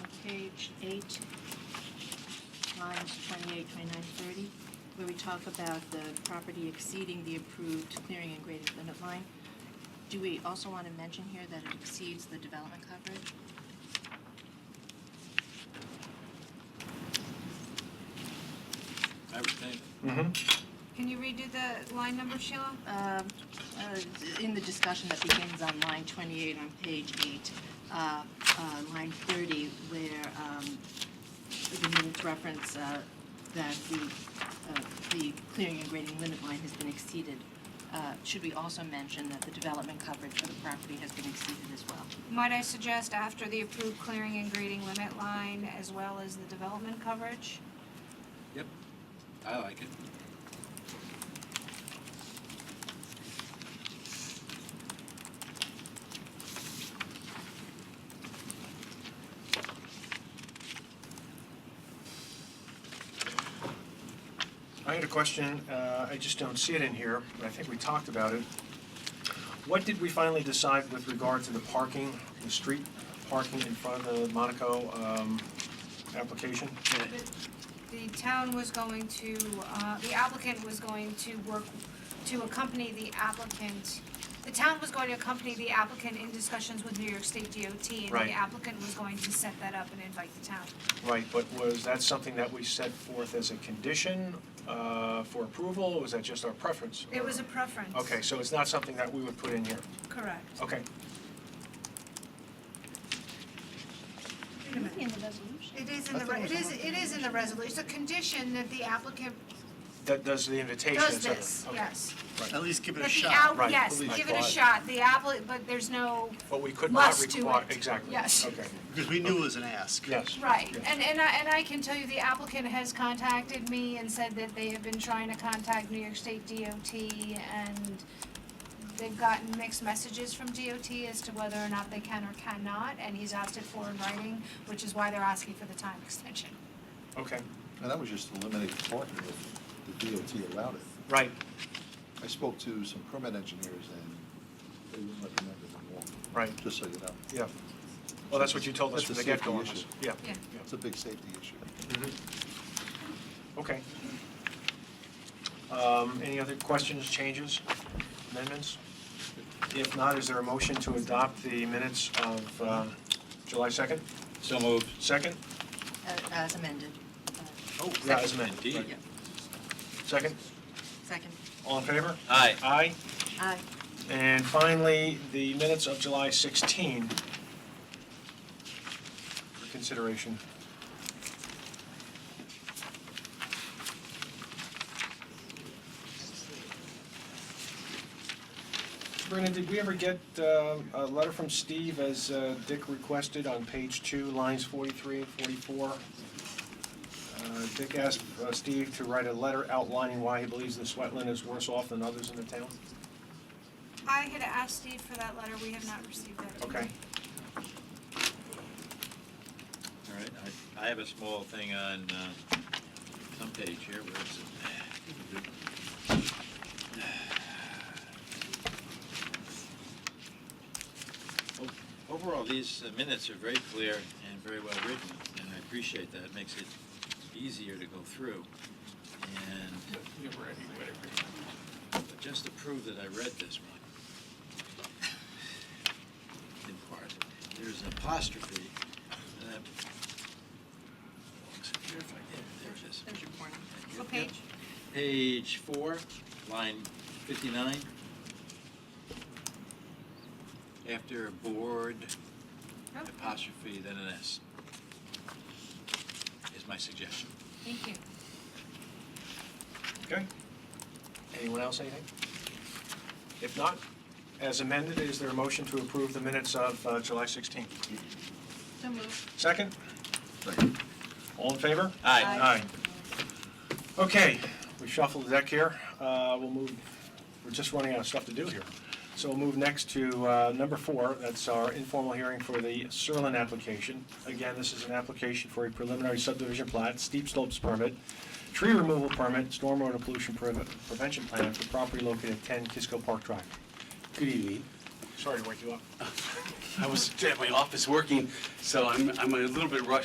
page eight, lines 28, 29, 30, where we talk about the property exceeding the approved clearing and grading limit line. Do we also want to mention here that it exceeds the development coverage? I would think. Mm-hmm. Can you redo the line number, Sheila? Um, uh, In the discussion that begins on line 28 on page 8, uh, uh, line 30, where um, the minutes reference uh, that the, uh, the clearing and grading limit line has been exceeded, uh, should we also mention that the development coverage for the property has been exceeded as well? Might I suggest after the approved clearing and grading limit line, as well as the development coverage? Yep. I like it. I had a question, uh, I just don't see it in here, but I think we talked about it. What did we finally decide with regard to the parking, the street parking in front of the Monaco um, application? The town was going to, uh, the applicant was going to work, to accompany the applicant, the town was going to accompany the applicant in discussions with New York State DOT, and Right. the applicant was going to set that up and invite the town. Right, but was that something that we set forth as a condition uh, for approval, or was that just our preference? It was a preference. Okay, so it's not something that we would put in here, Correct. okay. Wait a minute. In the resolution. It is in the, re- it is, it is in the resolution, it's a condition that the applicant That does the invitation, et does cetera. this, Okay. yes. At least give it a That the shot. al- Right. Yes, Please. give it a shot, the applicant, but there's no, But we could not Must do require, it. exactly, Yes. okay, Because we knew it was an ask. yes. right, Yeah. and, and I, and I can tell you, the applicant has contacted me and said that they have been trying to contact New York State DOT, and they've gotten mixed messages from DOT as to whether or not they can or cannot, and he's asked it for in writing, which is why they're asking for the time extension. Okay, And that was just eliminated parking if the DOT allowed it. right, I spoke to some permit engineers and they wouldn't recommend it anymore. Right. Just so you know. yeah. Well, that's what you told us That's from the a get-go on safety this. issue. Yeah. Yeah. It's a big safety issue. Mm-hmm. Okay. Um, Any other questions, changes, amendments? If not, is there a motion to adopt the minutes of um, July 2nd? So moved. Second? Uh, As amended. Uh, Oh, yeah, as amended. Indeed. yeah. Second? Second. All in favor? Aye. Aye. Aye. And finally, the minutes of July 16 for consideration. Brennan, did we ever get uh, a letter from Steve as uh, Dick requested on page two, lines 43 and 44? Uh, Dick asked uh, Steve to write a letter outlining why he believes this wetland is worse off than others in the town? I had asked Steve for that letter, we have not received that. Okay. All right, I, I have a small thing on, uh, some page here, where is it? O- Overall, these uh, minutes are very clear and very well written, and I appreciate that, it makes it easier to go through. And But just to prove that I read this one, in part, there's an apostrophe. uh, Here, if I can, there it is. There's your corner. What page? Page four, line fifty-nine. After board, Oh. apostrophe, then an S. Is my suggestion. Thank you. Okay. Anyone else, anything? If not, as amended, is there a motion to approve the minutes of uh, July 16th? So moved. Second? Second. All in favor? Aye. Aye. Okay, we shuffled the deck here. Uh, We'll move, we're just running out of stuff to do here. So we'll move next to uh, number four. That's our informal hearing for the Serlin application. Again, this is an application for a preliminary subdivision plat, steep slopes permit, tree removal permit, stormwater pollution preve- prevention plan for property located at 10 Kisco Park Drive. Good evening. Sorry to wake you up. I was at my office working, so I'm, I'm a little bit rushed